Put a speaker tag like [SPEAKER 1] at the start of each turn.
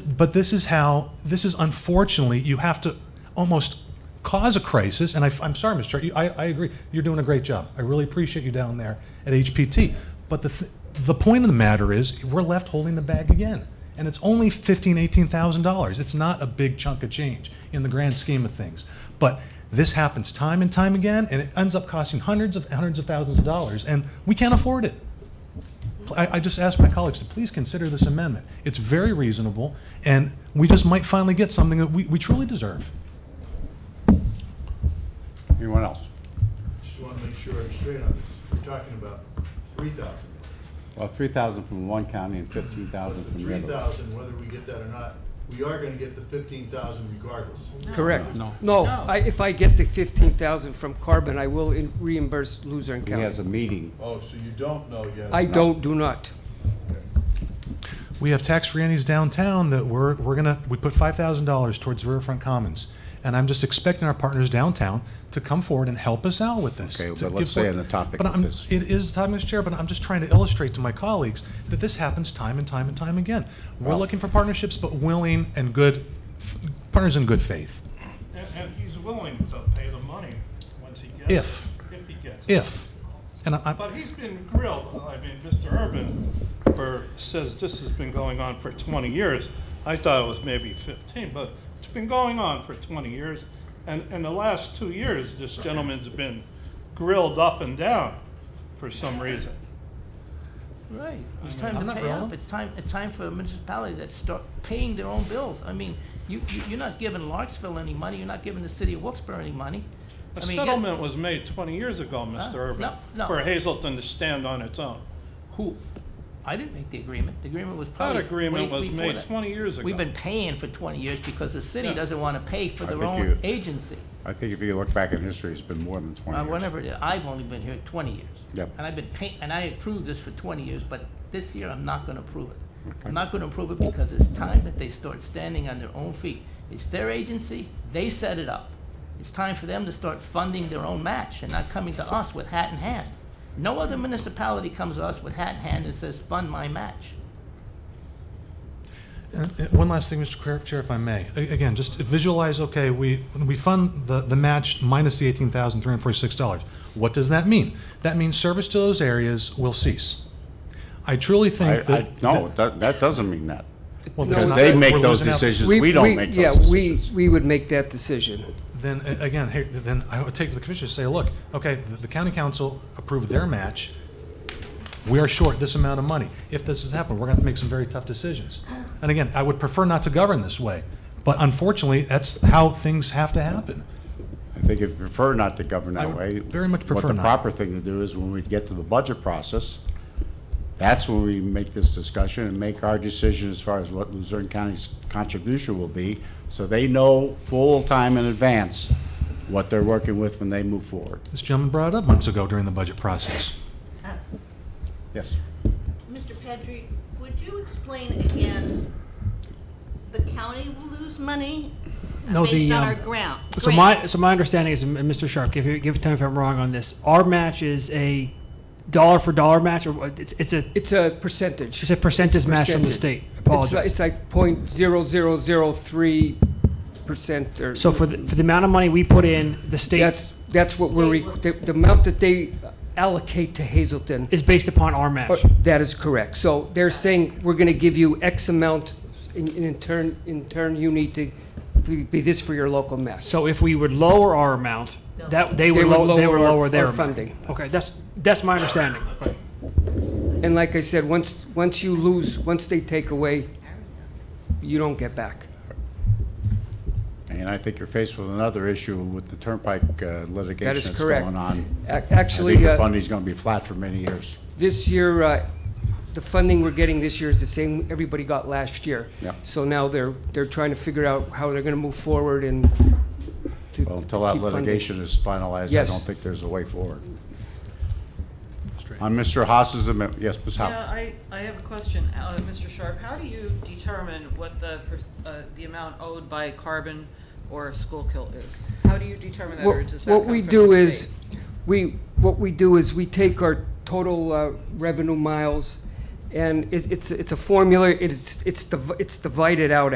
[SPEAKER 1] But this is how, this is unfortunately, you have to almost cause a crisis, and I, am sorry, Mr. Chair, you- I, I agree, you're doing a great job. I really appreciate you down there at HPT. But the, th- the point of the matter is, we're left holding the bag again. And it's only fifteen, eighteen thousand dollars. It's not a big chunk of change in the grand scheme of things. But this happens time and time again, and it ends up costing hundreds of, hundreds of thousands of dollars, and we can't afford it. I, I just asked my colleagues to please consider this amendment. It's very reasonable, and we just might finally get something that we, we truly deserve.
[SPEAKER 2] Anyone else?
[SPEAKER 3] Just want to make sure I'm straight on this. We're talking about three thousand.
[SPEAKER 2] Well, three thousand from one county and fifteen thousand from the
[SPEAKER 3] Three
[SPEAKER 2] other.
[SPEAKER 3] thousand, whether we get that or not, we are gonna get the fifteen thousand regardless.
[SPEAKER 4] Correct. No. No, I, if I get the fifteen thousand from Carbon, I will in- reimburse Luzerne
[SPEAKER 2] He has
[SPEAKER 4] County.
[SPEAKER 2] a meeting.
[SPEAKER 3] Oh, so you don't know yet?
[SPEAKER 4] I don't, do not.
[SPEAKER 1] We have tax-free entities downtown that we're, we're gonna, we put five thousand dollars towards Riverfront Commons. And I'm just expecting our partners downtown to come forward and help us out with this.
[SPEAKER 2] Okay,
[SPEAKER 1] to
[SPEAKER 2] but let's
[SPEAKER 1] give-
[SPEAKER 2] stay on the topic
[SPEAKER 1] But
[SPEAKER 2] of
[SPEAKER 1] I'm-
[SPEAKER 2] this.
[SPEAKER 1] It is, Todd, Mr. Chair, but I'm just trying to illustrate to my colleagues that this happens time and time and time again. We're
[SPEAKER 2] Well-
[SPEAKER 1] looking for partnerships, but willing and good, f- partners in good faith.
[SPEAKER 5] And, and he's willing to pay the money once he gets it.
[SPEAKER 1] If.
[SPEAKER 5] If he gets it.
[SPEAKER 1] If, and I, I-
[SPEAKER 5] But he's been grilled, I mean, Mr. Urban for, says this has been going on for twenty years. I thought it was maybe fifteen, but it's been going on for twenty years. And, and the last two years, this gentleman's been grilled up and down for some reason.
[SPEAKER 6] Right. It's time to pay up. It's time, it's time for municipalities that start paying their own bills. I mean, you, you, you're not giving Larksville any money, you're not giving the city of Wilkes-Barre any money.
[SPEAKER 5] A
[SPEAKER 6] I mean, yeah,
[SPEAKER 5] settlement was made twenty years ago, Mr.
[SPEAKER 6] no,
[SPEAKER 5] Urban,
[SPEAKER 6] no.
[SPEAKER 5] for Hazelton to stand on its own.
[SPEAKER 6] Who, I didn't make the agreement. The agreement was
[SPEAKER 5] That
[SPEAKER 6] probably.
[SPEAKER 5] agreement
[SPEAKER 6] way
[SPEAKER 5] was
[SPEAKER 6] before
[SPEAKER 5] made
[SPEAKER 6] that.
[SPEAKER 5] twenty years ago.
[SPEAKER 6] We've been paying for twenty years because the city
[SPEAKER 5] Yeah.
[SPEAKER 6] doesn't wanna pay for
[SPEAKER 2] I
[SPEAKER 6] their
[SPEAKER 2] think
[SPEAKER 6] own
[SPEAKER 2] you-
[SPEAKER 6] agency.
[SPEAKER 2] I think if you look back in history, it's been more than twenty
[SPEAKER 6] Uh,
[SPEAKER 2] years.
[SPEAKER 6] whatever it is, I've only been here twenty years.
[SPEAKER 2] Yep.
[SPEAKER 6] And I've been paying, and I approved this for twenty years, but this year I'm not gonna approve it. I'm not gonna approve it because it's time that they start standing on their own feet. It's their agency, they set it up. It's time for them to start funding their own match and not coming to us with hat in hand. No other municipality comes to us with hat in hand and says, fund my match.
[SPEAKER 1] Uh, uh, One last thing, Mr. Chair- Chair, if I may. A- Again, just visualize, okay, we, we fund the, the match minus the $18,346. What does that mean? That means service to those areas will cease. I truly
[SPEAKER 2] I,
[SPEAKER 1] think
[SPEAKER 2] I,
[SPEAKER 1] that.
[SPEAKER 2] no, that, that doesn't mean that.
[SPEAKER 1] well, that's
[SPEAKER 2] Because
[SPEAKER 1] not-
[SPEAKER 2] they
[SPEAKER 1] we're
[SPEAKER 2] make those
[SPEAKER 1] losing out.
[SPEAKER 2] decisions, we don't make those decisions.
[SPEAKER 4] Yeah, we, we would make that decision.
[SPEAKER 1] Then, uh, again, here- then I would take to the commissioners, say, look, okay, the- the county council approved their match. We are short this amount of money. If this has happened, we're going to make some very tough decisions. And again, I would prefer not to govern this way, but unfortunately, that's how things have to happen.
[SPEAKER 2] I think if you prefer not to govern
[SPEAKER 1] I
[SPEAKER 2] that
[SPEAKER 1] would
[SPEAKER 2] way.
[SPEAKER 1] very much prefer
[SPEAKER 2] What the
[SPEAKER 1] not.
[SPEAKER 2] proper thing to do is when we get to the budget process, that's when we make this discussion and make our decision as far as what Luzerne County's contribution will be, so they know full time in advance what they're working with when they move forward.
[SPEAKER 1] This gentleman brought it up months ago during the budget process.
[SPEAKER 2] Yes.
[SPEAKER 7] Mr. Pedri, would you explain again, the county will lose money uh,
[SPEAKER 8] No, the,
[SPEAKER 7] based on our
[SPEAKER 8] um,
[SPEAKER 7] grant?
[SPEAKER 8] So
[SPEAKER 7] grant?
[SPEAKER 8] my so my understanding is, and Mr. Sharp, give give time if I'm wrong on this. Our match is a dollar for dollar match, or what- it's it's a
[SPEAKER 4] It's a percentage.
[SPEAKER 8] it's a percentage match from the
[SPEAKER 4] Percentage.
[SPEAKER 8] state.
[SPEAKER 4] It's
[SPEAKER 8] Apologize.
[SPEAKER 4] like- It's like point zero zero zero three percent or.
[SPEAKER 8] so for the, for the amount of money we put in, the state
[SPEAKER 4] That's, that's what we're, requ- the the amount that they allocate to Hazelton,
[SPEAKER 8] is based upon our match.
[SPEAKER 4] uh, that is correct. So they're saying, we're going to give you X amount, and and in turn, in turn, you need to be- be this for your local match.
[SPEAKER 8] so if we would lower our amount, that they would,
[SPEAKER 4] They would
[SPEAKER 8] low, they would
[SPEAKER 4] lower our-
[SPEAKER 8] lower their
[SPEAKER 4] our
[SPEAKER 8] amount.
[SPEAKER 4] funding.
[SPEAKER 8] Okay, that's that's my understanding.
[SPEAKER 4] And like I said, once, once you lose, once they take away, you don't get back.
[SPEAKER 2] And I think you're faced with another issue with the turnpike uh, litigation that's
[SPEAKER 4] correct.
[SPEAKER 2] going on.
[SPEAKER 4] Ac-
[SPEAKER 2] I
[SPEAKER 4] Actually,
[SPEAKER 2] think the
[SPEAKER 4] uh,
[SPEAKER 2] funding's going to be flat for many years.
[SPEAKER 4] This year, uh, the funding we're getting this year is the same everybody got last year.
[SPEAKER 2] Yeah.
[SPEAKER 4] So now they're, they're trying to figure out how they're gonna move forward and to
[SPEAKER 2] Well, until that
[SPEAKER 4] keep funding.
[SPEAKER 2] litigation is finalized, I
[SPEAKER 4] Yes.
[SPEAKER 2] don't think there's a way forward. On Mr. Haas's amendment, yes, Ms.
[SPEAKER 9] Yeah,
[SPEAKER 2] Howe.
[SPEAKER 9] I, I have a question, uh, Mr. Sharp, how do you determine what the, pers- uh, the amount owed by carbon or Schuylkill is? How do you determine that, or
[SPEAKER 4] What
[SPEAKER 9] does that
[SPEAKER 4] what
[SPEAKER 9] come
[SPEAKER 4] we
[SPEAKER 9] from
[SPEAKER 4] do
[SPEAKER 9] the
[SPEAKER 4] is,
[SPEAKER 9] state?
[SPEAKER 4] we, what we do is we take our total uh, revenue miles And it's, it's, it's a formula, it's, it's, div- it's divided out,